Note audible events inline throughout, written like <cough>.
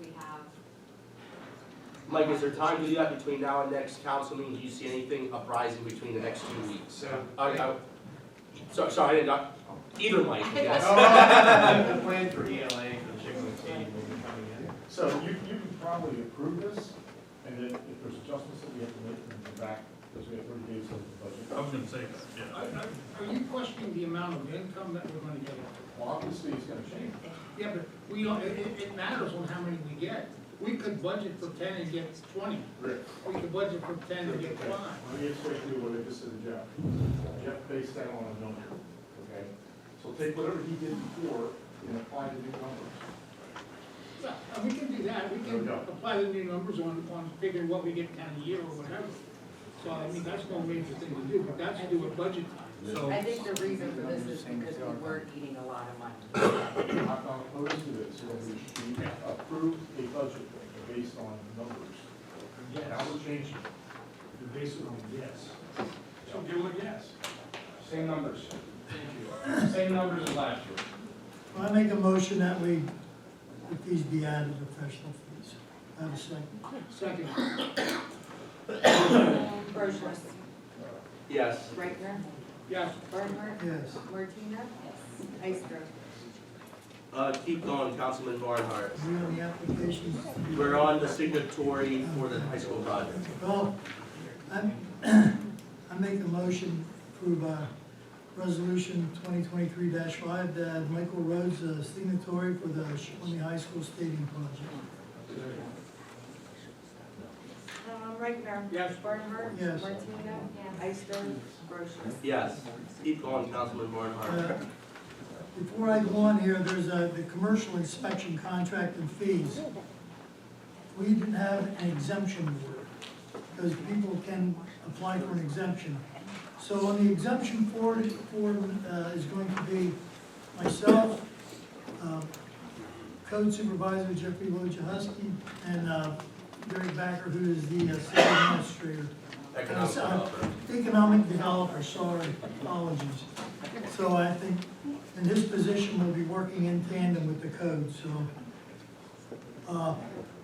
we have, Mike, is there time to do that between now and next council meeting? Do you see anything uprising between the next two weeks? So, <laughs> I, I, so, sorry, I didn't, know. either Mike, Oh, yes. I'm the plan for ELA for the chicken team will be coming in. So you, you can probably approve this, and then if there's adjustments that we have to make, we can come back, because we have thirty days of the budget. I was gonna say that, yeah. Are are- are you questioning the amount of income that we're gonna get? Well, obviously, it's gonna change. Yeah, but we, don't- it, it- it matters on how many we get. We could budget for ten and get twenty. Rick, We could budget for ten and get okay, five. Let me explain to you what I just said to Jeff. Jeff based that on a number, okay? So take whatever he did before and apply the new numbers. Yeah, and uh, we can do that. We There we can go. apply the new numbers on, on figuring what we get down a year or whatever. So, I mean, that's no major thing to do, but that's due at budget time. So, I think the reason for this is because we were eating a lot of money. <coughs> I'm not opposed to this, so we we approved a budget based on numbers. Now we're changing. You're basing on yes. So give them a guess. Same numbers. Same numbers as last year. I make a motion that we, the fees be added, professional fees. I Have a second. Second, Brochus, Yes. Reichtner, yes, Barnhart, Yes. Martina, Ister. Uh, keep going, Councilman Barnhart. Is there any applications? We're on the signatory for the high school project. Well, I, <clears throat> I make a motion to approve, uh, resolution twenty twenty-three five, that Michael Rhodes, uh, signatory for the Shawnee High School Stadium project. Um, Reichtner. Yes. Barnhart. Yes. Martina. Ister. Brochus. Yes. Keep going, Councilman Barnhart. Uh, Before I go on here, there's a, the commercial inspection contract and fees. We didn't have an exemption board, because people can apply for an exemption. So on the exemption board, form, uh, is going to be myself, uh, code supervisor Jeffrey Wojciechowski, and, uh, Gary Backer, who is the uh, city administrator. Economic development. Economic developer, sorry, apologies. So I think, in his position, we'll be working in tandem with the code, so. uh,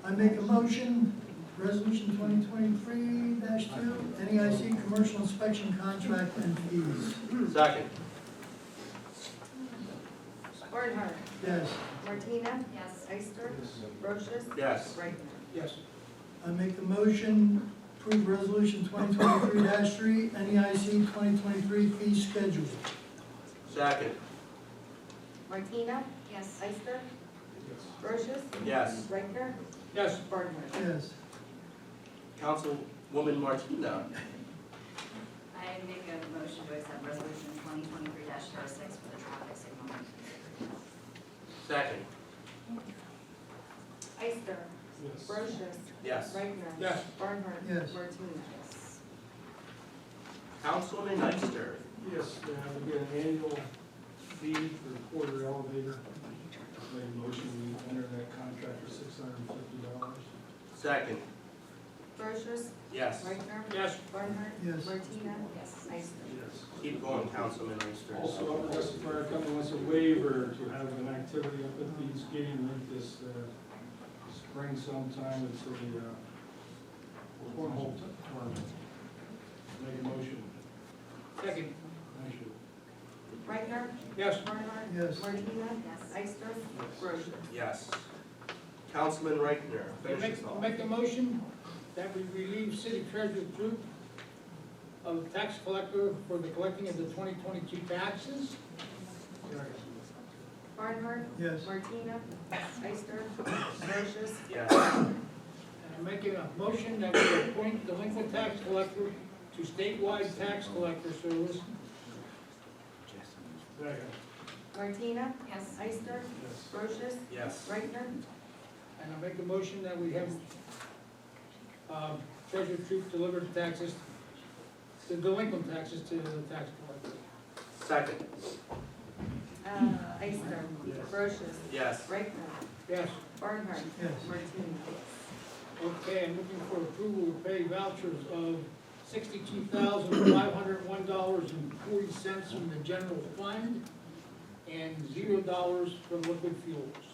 I make a motion, resolution twenty twenty-three two, NEIC commercial inspection contract and fees. Second. Barnhart. Yes, Martina. Yes. Ister. Brochus. Yes. Reichtner. yes, I make a motion, approve resolution twenty twenty-three three, NEIC twenty twenty-three fee schedule. Second. Martina. Yes. Ister. Brochus. Yes. Reichtner. yes. Barnhart. Yes, Councilwoman Martina. I make a motion to accept resolution twenty twenty-three 6 for the traffic signal. Second. Ister. Brochus. Yes. Reichtner. Yes. Barnhart. Yes. Martina. Yes. Councilman Ister. Yes, uh, we get an annual fee for the quarter elevator. Make a motion, we enter that contract for six hundred and fifty dollars. Second. Brochus. Yes. Reichtner. Yes. Barnhart. Yes. Martina. Yes. Ister. Yes. Keep going, Councilman Ister. Also, Upper West Fire Company wants a waiver to have an activity up at Dean's Game Rink this uh, spring sometime. It's a uh, cornhole t- tournament. Make a motion. Second, Thank you. Reichtner. yes. Barnhart. yes. Martina. Yes. Ister. Brochus. Yes. Councilman Reichtner, I finish Make, this I off. make a motion that we relieve city treasurer group of tax collector for the collecting of the twenty twenty-two taxes. Barnhart. Yes. Martina. Ister. Brochus. Yes. And I'm making a motion that we appoint delinquent tax collector to statewide tax collector service. Second. Martina. Yes. Ister. Yes. Brochus. Yes. Reichtner. And I make a motion that we have, um, treasurer troop deliver the taxes, the delinquent taxes to the tax collector. Second. Uh, Ister. Brochus. Yes. Reichtner. Yes, Barnhart. Yes. Martina. okay, I'm looking for approval to pay vouchers of sixty-two thousand, five hundred and one dollars and forty cents from the general fund. and zero dollars for liquid fuels.